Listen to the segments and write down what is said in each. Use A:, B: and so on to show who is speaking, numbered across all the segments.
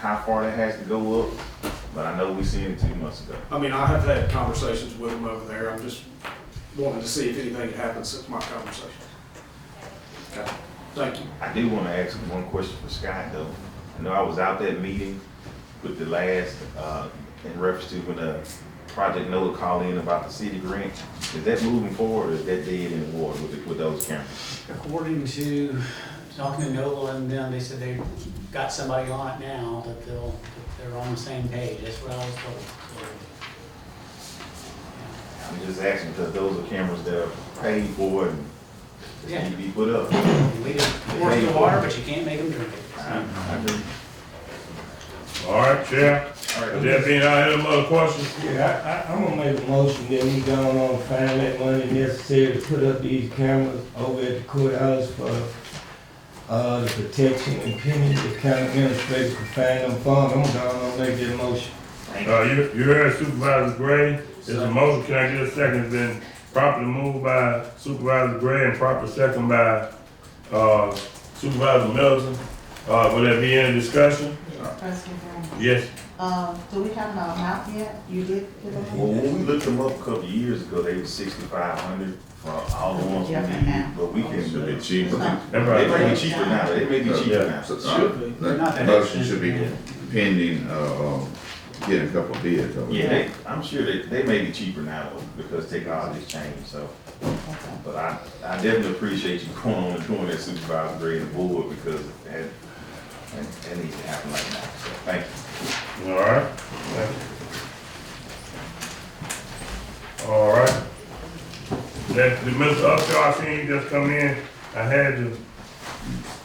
A: how far that has to go up, but I know we seen it two months ago.
B: I mean, I have had conversations with them over there, I'm just wanting to see if anything had happened since my conversation. Okay, thank you.
A: I do want to ask one question for Scott though. I know I was out that meeting with the last, uh, in reference to when the Project Noah called in about the city grant. Is that moving forward or is that dead in the water with, with those cameras?
C: According to talking to Nola and them, they said they got somebody on it now, that they'll, that they're on the same page, that's what I was told. so.
A: I'm just asking because those are cameras that are paid for and
C: Yeah.
A: need to be put up.
C: We just force the water, but you can't make them drink it.
A: I-
C: so.
A: I agree.
D: All right, Chair.
A: All right.
D: Is there being out here other questions?
E: Yeah, I, I, I'm gonna make a motion that we go on and find that money necessary to put up these cameras over at the courthouse for, uh, the protection and penalty the county administrator can find them funds. I'm gonna go on and make that motion.
D: Uh, you, you heard Supervisor Gray, it's a motion, can I get a second, it's been properly moved by Supervisor Gray and proper second by, uh, Supervisor Middleton. Uh, will there be any discussion?
F: President Brown,
D: Yes,
F: uh, do we have an amount yet? You did give
A: Well,
F: them?
A: when we looked them up a couple of years ago, they were sixty-five hundred for all the ones we
F: Different now.
A: need, but we can.
G: Should be cheaper.
D: that's
A: It
D: right.
A: may be cheaper now, it may be cheaper now.
G: So,
A: So,
G: uh, That motion should be pending, uh, uh, getting a couple of bids. over
A: Yeah,
G: there.
A: they, I'm sure they, they may be cheaper now though, because technology's changed, so. But I, I definitely appreciate you going on and doing that supervisor grade and board because that, that, that needs to happen right now, so thank you.
D: All right. All right. That, the Mr. Upshaw, I seen you just come in, I had the,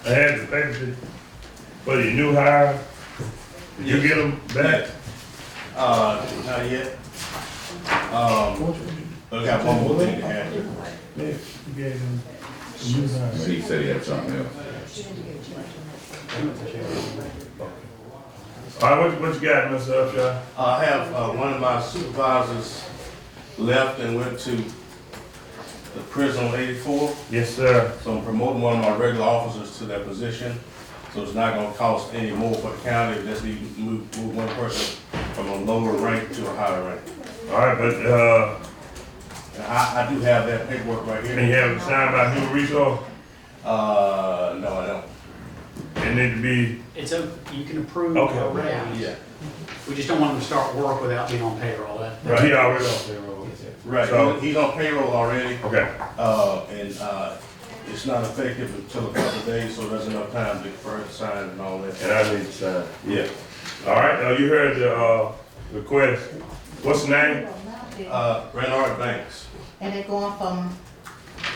D: I had the papers for your new hire. Did you get them back?
H: Uh, not yet. Um, I got one more thing to add.
G: He said he had something else.
D: All right, what, what you got, Mr. Upshaw?
H: I have, uh, one of my supervisors left and went to the prison on eighty-four,
D: Yes, sir.
H: so I'm promoting one of my regular officers to that position. So it's not gonna cost any more for the county, just need to move, move one person from a lower rank to a higher rank.
D: All right, but, uh,
H: And I, I do have that paperwork right
D: and you
H: here.
D: have it signed by human resource,
H: Uh, no, I don't.
D: it need to be,
C: It's a, you can approve
D: Okay.
C: already, we just don't want them to start work without being on payroll, that.
D: right, he already on. So-
H: Right, he- he's on payroll already.
D: Okay,
H: Uh, and, uh, it's not effective until a couple of days, so there's enough time to further sign and all
D: and
H: that.
D: I need to sign.
H: Yeah.
D: All right, uh, you heard the, uh, request. What's the name?
H: Uh, Renard Banks,
F: And they're going from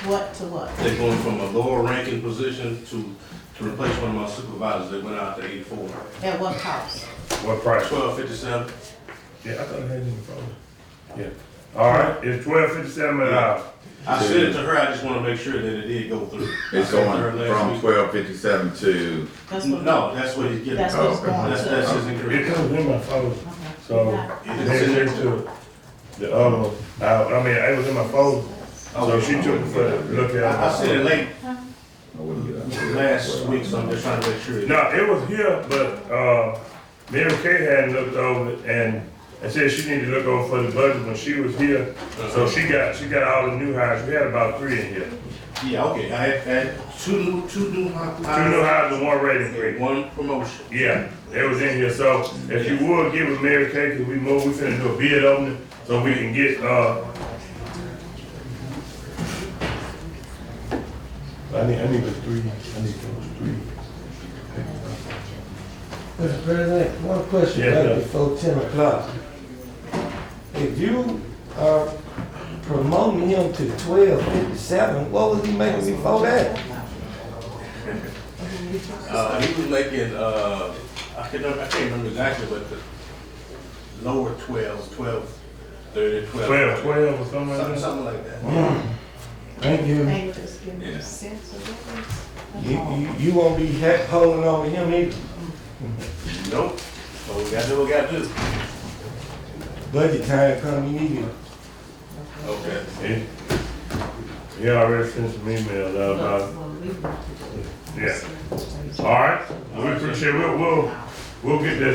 F: what to what?
H: they're going from a lower ranking position to, to replace one of my supervisors that went out to eighty-four.
F: At what cost?
D: What price?
H: Twelve fifty-seven,
D: Yeah, I thought I had it in the phone. Yeah. All right, it's twelve fifty-seven uh, an hour.
H: I sent it to her, I just wanna make sure that it did go through.
G: It's
H: I sent it to her
G: going
H: last
G: from
H: week.
G: twelve fifty-seven to,
F: That's what-
H: No, that's what he's getting,
F: That's what it's
G: okay.
F: going
H: that's, that's
F: to.
H: his
D: It
H: increase.
D: comes in my phone,
F: Okay.
D: so
H: It's
D: it's
H: in there.
D: next to the other one. I, I mean, it was in my phone, so she took it for the look
H: Oh, I, I
D: at.
H: sent it
D: it.
H: late
G: I wouldn't get out.
H: last week, so I'm just trying to make sure. it-
D: No, it was here, but, uh, Mary Kay hadn't looked over it and I said she needed to look over for the budget when she was here. So she got, she got all the new hires. We had about three in here.
H: Yeah, okay, I had, had two new, two
D: Two
H: new.
D: new hires and one rating increase.
H: One promotion.
D: Yeah, it was in here, so if you would give us Mary Kay, cause we move, we finna do a bid opening, so we can get, uh. I need, I need the three, I need those three.
E: Mr. President, one question
D: Yes, sir.
E: right before ten o'clock. If you are promoting him to twelve fifty-seven, what was he making before that?
H: Uh, he was making, uh, I can, I can't remember exactly, but the lower twelves, twelve, thirty, twelve.
D: Twelve, twelve or something
H: Something,
D: like that?
H: something like that.
E: Thank you.
F: And you just give them
H: Yeah.
F: a sense of it.
E: You, you, you won't be ha- holding on to him either.
H: Nope, but we gotta do what we gotta do.
E: Budget time come, you need to
H: Okay.
D: Yeah. Yeah, I already sent some emails out about it. Yeah, alright, we appreciate, we'll, we'll, we'll get that